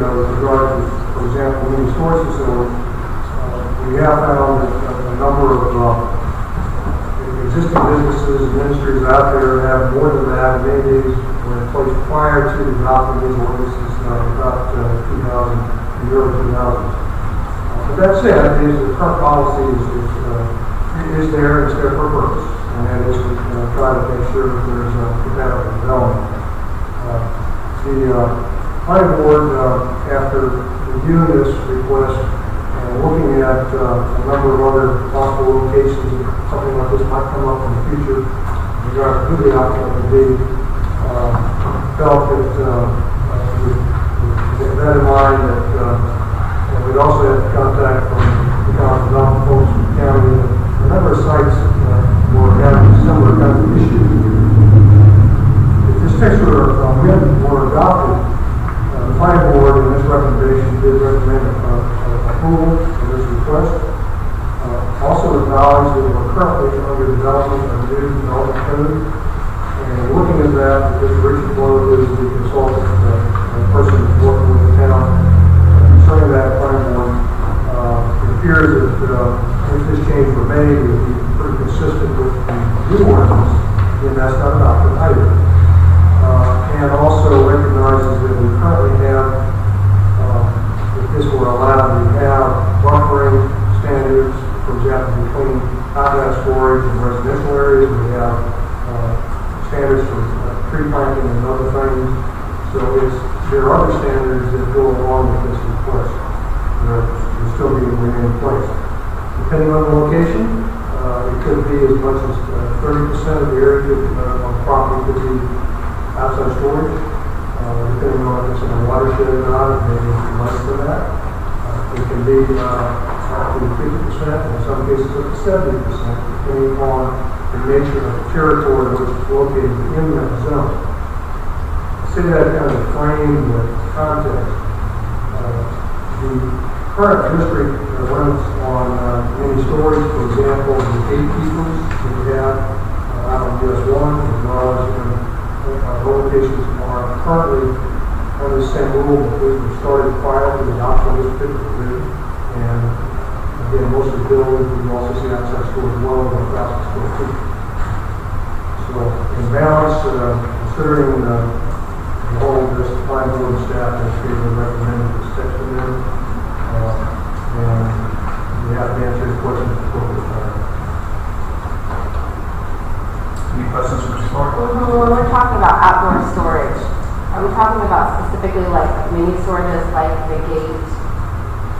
You know, with regard to, for example, the mini storage facility, uh, we have found that uh, a number of, uh, existing businesses and industries out there have more than that, maybe were in place prior to adopting these ordinances, uh, about uh, 2000, the year 2000. Uh, But that said, is the current policy is, is, uh, is there, it's there for a purpose, and that is to uh, try to make sure that there's a compatible development. Uh, The uh, planning board, uh, after reviewing this request and looking at uh, a number of other possible locations, that something like this might come up in the future, regarding who the applicant would be, uh, felt that, uh, uh, with- with that in mind, that uh, and we'd also have contact from the county development folks from the county, a number of sites uh, were having similar kinds of issues. If this particular amendment were adopted, uh, the planning board in this recommendation did recommend uh, uh, approval of this request. Uh, Also acknowledged that we're currently under development of new development code. And looking at that, Mr. Richard Blow is the consultant, uh, uh, person that's working with the town concerning that planning board. Uh, It appears that uh, if this change were made, it would be pretty consistent with the new ordinance, and that's not adopted either uh, and also recognizes that we currently have, uh, if this were allowed, we have buffering standards, for example, between outlet storage and residential areas, we have uh, standards for uh, tree planting and other things, so it's, there are other standards that go along with this request, that will still be remain in place depending on the location, uh, it could be as much as uh, thirty percent of the area could, uh, of property could be outside storage, uh, depending on if it's in a watershed or not, it may be less than that. Uh, It can be, uh, up to fifty percent, in some cases up to seventy percent, depending on the nature of the territory which is located in that zone. See that kind of frame, the context, uh, The current district uh, limits on uh, many stories, for example, the eight peoples that we have uh, out on US one, as well as in uh, our locations are currently under the same rule that we started prior to the adoption of this particular rule. And again, most of the buildings, we also see outside stores well over a thousand square feet. So in balance, uh, considering uh, the the whole of this planning board and staff has given recommended this text amendment. uh, And we have to answer your questions appropriately. Any questions for Mr. Clark? Well, When we're talking about outdoor storage, are we talking about specifically like mini storages like the gate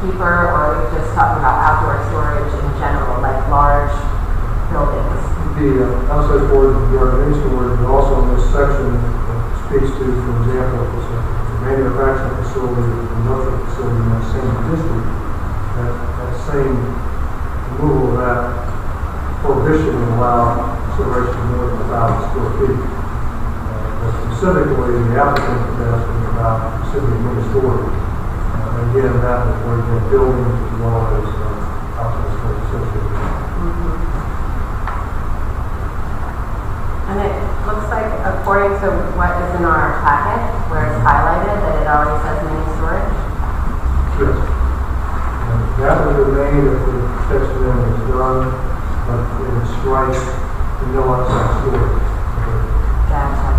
keeper, or are we just talking about outdoor storage in general, like large buildings? The uh, outside board, the organization board, but also in this section uh, speaks to, for example, if it's a manufacturing facility, or industrial facility in that same district, that, that same rule, that prohibition would allow consideration of more than a thousand square feet. Uh, but Specifically, the applicant is asking about specifically mini storage. Uh, Again, that would work in buildings as well as uh, outside storage associated. with it. And it looks like according to what is in our packet, where it's highlighted, that it already says mini storage. Yes. And That would remain if the text amendment is done, but in strike, no outside storage. Gotcha.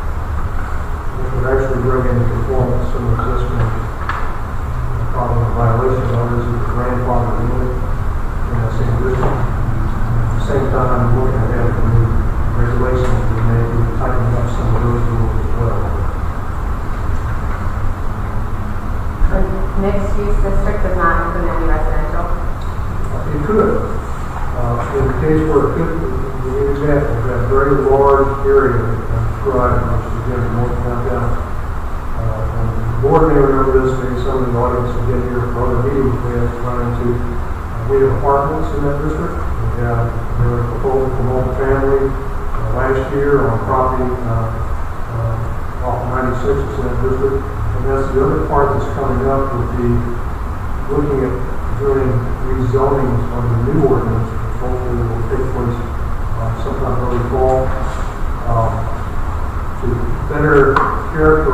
It would actually bring into conformance some existing, uh, probably violation others of the grandfather unit in that same district. At the same time, looking at that, the new regulations, we may be tightening up some of those rules as well. So mixed use district does not include any residential? It could. Uh, In the case where it could, the example, that very large area described, which is again, north downtown. Uh, and the Board may remember this, maybe some of the audience will get here for other meetings we have run into. uh, We have apartments in that district. We have, there was a proposal from Old Family uh, last year on property uh, uh, off 96 is in that district. And that's the other part that's coming up would be looking at doing rezoning on the new ordinance, which hopefully will take place uh, sometime early fall, um, to better character